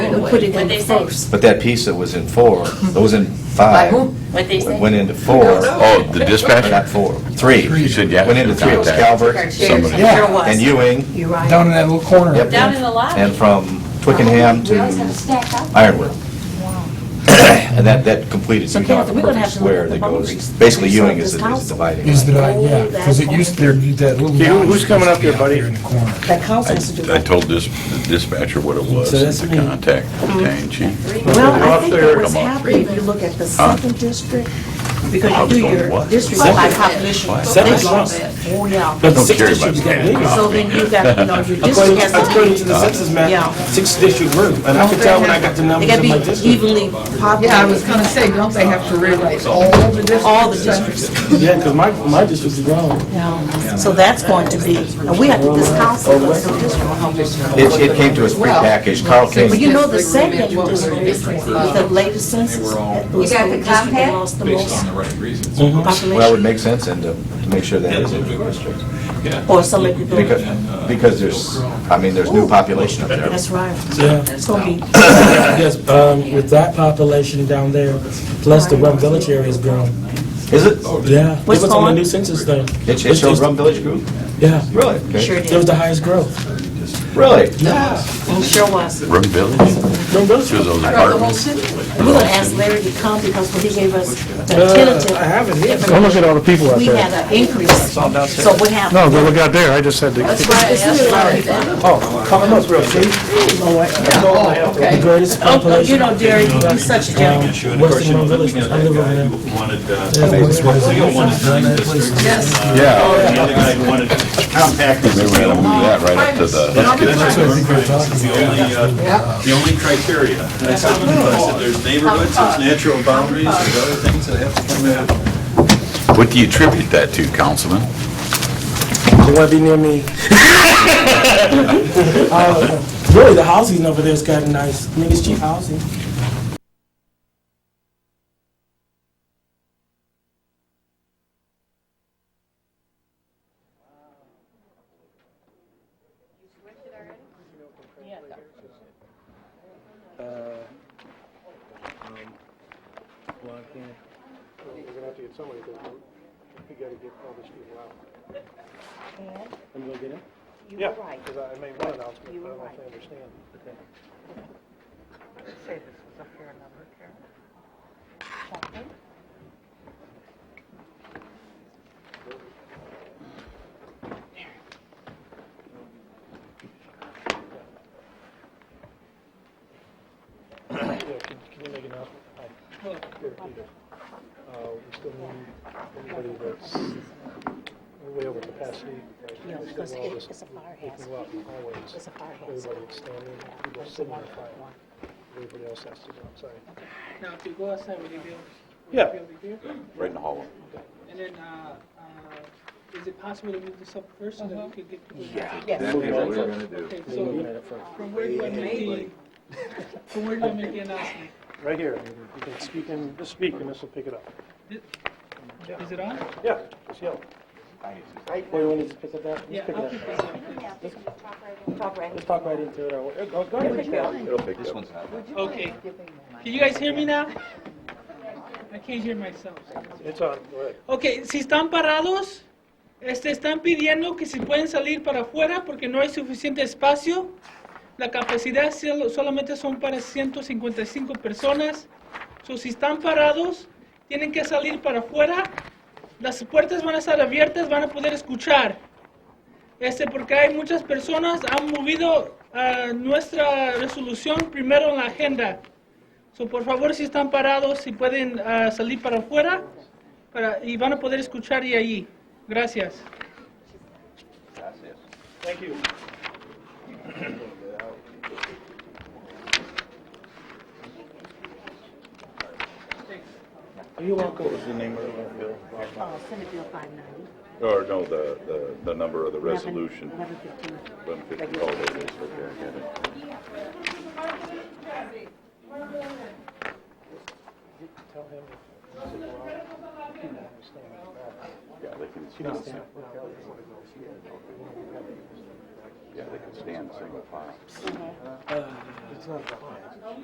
the We way. put it in What'd the they say? first. But that piece that was in four, that was in five, whom? What'd they say? went into four, Oh, the or not dispatcher? four, three. You said yeah. Went into three, it was Contact. Calvert. Our chairs, Somebody. I'm sure it Yeah, was. and Ewing, You're right. down in that little corner. Yep. Down in the lobby. and from Twickenham to We always have a stack up. Ironwood. And that, that completed So, Utah, Kenneth, we're gonna perfect have to look at square the that goes, boundaries. basically Ewing This is the is council. the dividing Is the, line. yeah, because it used, there, that little. Okay, who- who's line coming up used to be here, buddy? there In the corner. That council has to do I I that. told this the dispatcher what it was, So that's the me. contact, Mm-hmm. battalion chief. Well, I think Come that was on. happening, if you look at the Huh? second district, I because was you do going, your what? district Second? by population. Why? They Second? lost- Oh, yeah. But Don't six care districts about got that. bigger. So then you got, you know, your district According has to according to be. the census Yeah. Oh, map, six district grew, and I could tell when I got the They numbers gotta in my be district. evenly Yeah, I was populated, gonna say, don't they have to rewrite all the districts? all the districts. Yeah, because my, my district's grown. Yeah. So that's going to be, and we have to, this council, this district. It, it came to us prepackaged, Carl But King, you know, the second district is with the latest census. that was You got the district that compact? lost the most right reasons. population. well, it would make sense and to to make sure that is it. Or some of the- Because, because there's, I mean, there's new population up there. That's right. Yeah. It's gonna be, Yes, um, with that population down there, plus the Rum Village area's grown. Is it? Yeah. What's It was on the going? new census thing. It it shows Rum Village grew? Yeah, Really? sure Okay. it it was is. the highest growth. Really? Yeah. Sure was. Rum Village, Rum Village. two of those Throughout the whole apartments. city? We're gonna ask Larry to come because when he gave us the Uh, tentative. I have it here. Don't look at all the people out there. We had an increase, so what happened? No, go look out there, I just had to. That's right. Oh, coming up real cheap. The greatest Oh, you population, know, Derek, you're such a um, gentleman. Western Rum Village, I live over there. Wanted, uh, Yeah, Western Rum Village. Yeah. Oh, the other guy wanted, They were gonna move that right up to the, That's what I think they're talking about. the only, uh, the only criteria. And I said, no, I said, there's neighborhoods, there's natural boundaries, there's other things that have to come in. what do you attribute that to, Councilman? They want to be near me. Uh, Really, the housing over there's gotten nice. Niggas cheap housing. Now, if you go outside, will you be able, Yeah. will you be able to hear? Right in the hallway. And then, uh, uh, is it possible to move this up first so that we could get people? That's what we're gonna do. Okay, so, from where do I make the, from where do I make the announcement? Right here. You can speak and, just speak and this will pick it up. Is it on? Yeah, just yell. Or you want to just pick it up? Yeah, Just pick I'll it keep up. this on. Just talk right into it. or- Go go ahead. Okay. Can you guys hear me now? I can't hear myself. It's on, go ahead. Ok, si están parados, este, están pidiendo que si pueden salir para afuera porque no hay suficiente espacio. La capacidad solo- solamente son para 155 personas. So, si están parados, tienen que salir para afuera. Las puertas van a estar abiertas, van a poder escuchar. Este, porque hay muchas personas han movido ah, nuestra resolución primero en la agenda. So, por favor, si están parados, si pueden ah, salir para afuera para- y van a poder escuchar y ahí. Gracias. Thank you. You walk over to the name of the bill. Oh, Senate Bill 590. Or no, the, the, the number of the resolution. 1115. 150, oh, there it is, okay, I get it. Yeah, they can. Yeah, they could stand single file.